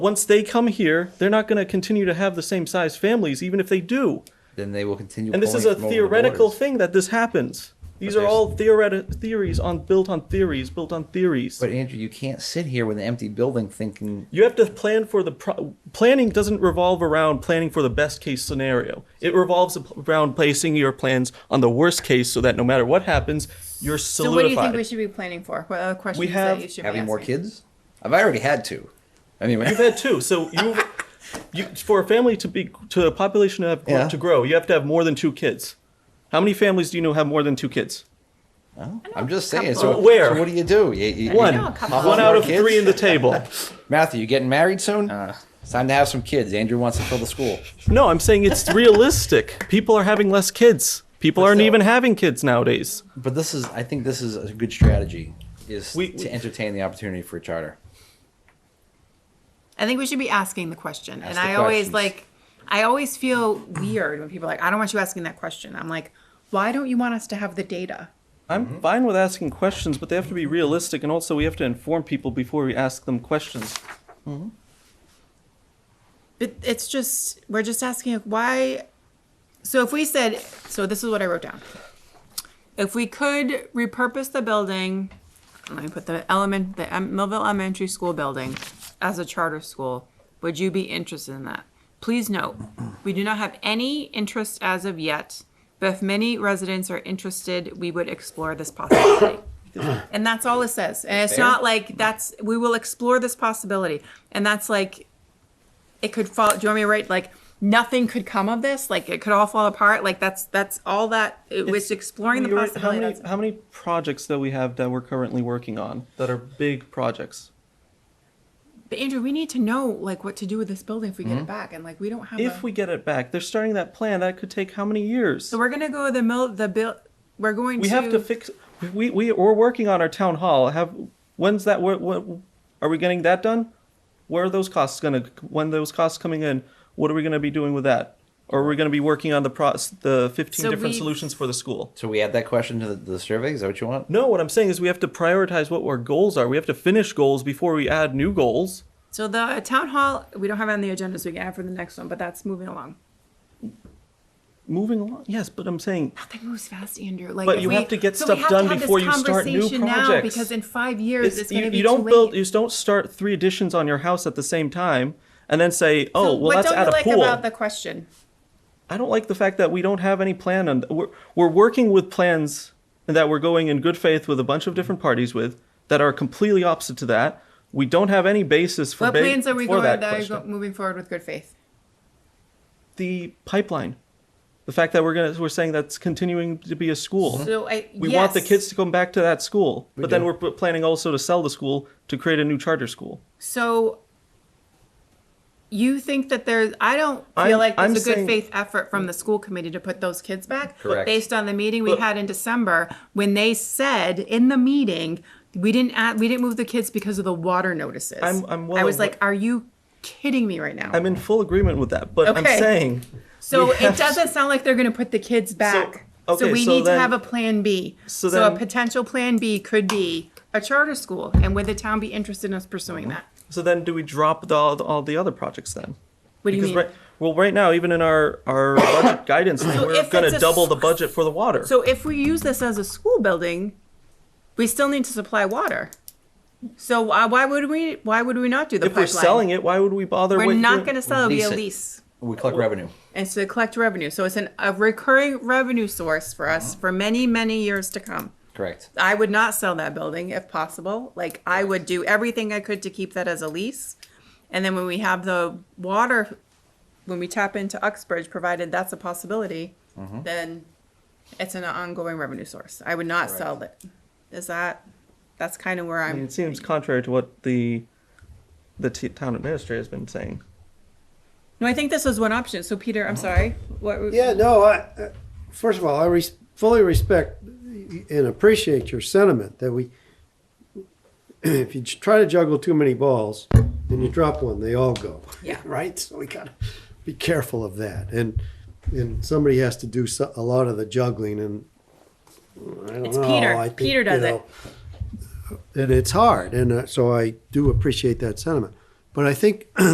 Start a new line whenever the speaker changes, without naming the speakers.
Once they come here, they're not going to continue to have the same size families, even if they do.
then they will continue.
And this is
pulling
a
from over the
theoretical
borders.
thing that this happens. These are
But there's-
all theoretic theories on built on theories, built on theories.
But Andrew, you can't sit here with an empty building thinking
You have to plan for the pro- planning doesn't revolve around planning for the best case scenario. It revolves around placing your plans on the worst case so that no matter what happens, you're
So what do
solidified.
you think we should be planning for? What other questions
have-
that you should be
having more
asking?
kids. I've already had two. Anyway,
You've had two, so you, you for a family to be to a population to have
Yeah.
to grow, you have to have more than two kids. How many families do you know have more than two kids?
Well, I'm just saying. So
couple. Where?
So what do you do? You- you-
One,
you-
know a couple.
one out of
Kids?
three in the table.
Matthew, you getting married soon? Uh, it's time to have some kids. Andrew wants to fill the school.
No, I'm saying it's realistic. People are having less kids. People aren't
still-
even having kids nowadays.
But this is, I think, this is a good strategy. Is
We-
to
we-
entertain the opportunity for a charter.
I think we should be asking the question. and
the
I always
questions.
like, I always feel weird when people are like, I don't want you asking that question. I'm like, why don't you want us to have the data?
I'm
Mm-hmm.
fine with asking questions, but they have to be realistic, and also we have to inform people before we ask them questions.
It, it's just, we're just asking like, why. So if we said, so this is what I wrote down. If we could repurpose the building, let me put the element, the um, Millville Elementary School building as a charter school, would you be interested in that? Please note, we do not have any interest as of yet, but if many residents are interested, we would explore this possibility. And that's all it says. And it's not like that's, we will explore this possibility. And that's like, it could fall. Do you want me to write like nothing could come of this? Like it could all fall apart. Like that's that's all that it was exploring the
We already-
possibility.
How many,
that's-
how many projects that we have that we're currently working on that are big projects?
But Andrew, we need to know like what to do with this building if we get it back, and like we don't have.
Mm-hmm. If
a,
we get it back, they're starting that plan. That could take how many years?
so we're gonna go the mill the bill. We're going
We
to.
have to fix. We we we're working on our town hall. Have when's that? What, what are we getting that done? Where are those costs gonna? When those costs coming in? What are we gonna be doing with that? Or are we gonna be working on the pro, the fifteen
So
different
we-
solutions for the school?
So we add that question to the, the survey. Is that what you want?
No, what I'm saying is we have to prioritize what our goals are. We have to finish goals before we add new goals.
So the town hall we don't have it on the agenda, so we can add for the next one. But that's moving along.
Moving along, yes, but I'm saying
That moves fast, Andrew. Like,
But
if
you
we,
have to get
so
stuff
we have to
done
have this
before you start new
conversation Now,
projects.
because in five years it's,
it's-
going
you,
to be
you don't
too
build,
late.
you don't start three additions on your house at the same time and then say, oh,
So
well,
what
let's
don't
add
you
a
like
pool.
about the question?
I don't like the fact that we don't have any plan on. We're, we're working with plans that we're going in good faith with a bunch of different parties with that are completely opposite to that. We don't have any basis for
What
ba-
plans are we
for
going
that
that are
question.
go- moving forward with good faith?
the pipeline, the fact that we're gonna we're saying that's continuing to be a school.
So I
we want the
yes.
kids to come back to that school, but then
do.
we're p- planning also to sell the school to create a new charter school.
So you think that there's I don't feel
I'm-
like
I'm
there's a good
saying-
faith effort from the school committee to put those kids back.
Correct.
Based on the meeting we
But-
had in December when they said in the meeting we didn't add, we didn't move the kids because of the water notices.
I'm- I'm well
I was
aware-
like, are you kidding me right now?
I'm in full agreement with that, but I'm
Okay.
saying
so
we
it
have-
doesn't sound like they're going to put the kids back. So,
okay,
we
so
need
then-
to have a plan B.
so
So,
then-
a potential plan B could be a charter school, and would the town be interested in us pursuing that?
So then, do we drop the, all, all the other projects then?
What do you
Because
mean?
right, well, right now, even in our our budget guidance, thing,
So
we're
if
going
it's
to
a
double
s-
the budget for the water.
So if we use this as a school building, we still need to supply water. So why, why would we? Why would we not do the
if we're
pipeline?
selling it, why would we bother?
we're
with
not
doing-
going to sell. It'll be a
Lease it.
lease,
We collect revenue.
and so collect revenue. So it's an, a recurring revenue source for us
Uh-huh.
for many, many years to come.
Correct.
I would not sell that building if possible. Like I would do everything I could to keep that as a lease. And then when we have the water, when we tap into Uxbridge, provided that's a possibility,
Mm-hmm.
then it's an ongoing revenue source. I would not sell it. Is that, that's kind of where
I mean,
I'm,
it seems contrary to what the the t- town administrator has been saying.
no, I think this is one option. So Peter,
Mm-hmm.
I'm sorry. What,
Yeah, no, I, uh, first of all, I res- fully respect and appreciate your sentiment that we, if you try to juggle too many balls and you drop one, they all go.
Yeah.
Right? So we gotta be careful of that. And, and somebody has to do so, a lot of the juggling and I don't
It's
know.
Peter.
I think,
Peter does
you
it.
know, And it's hard. And uh, so I do appreciate that sentiment. But I think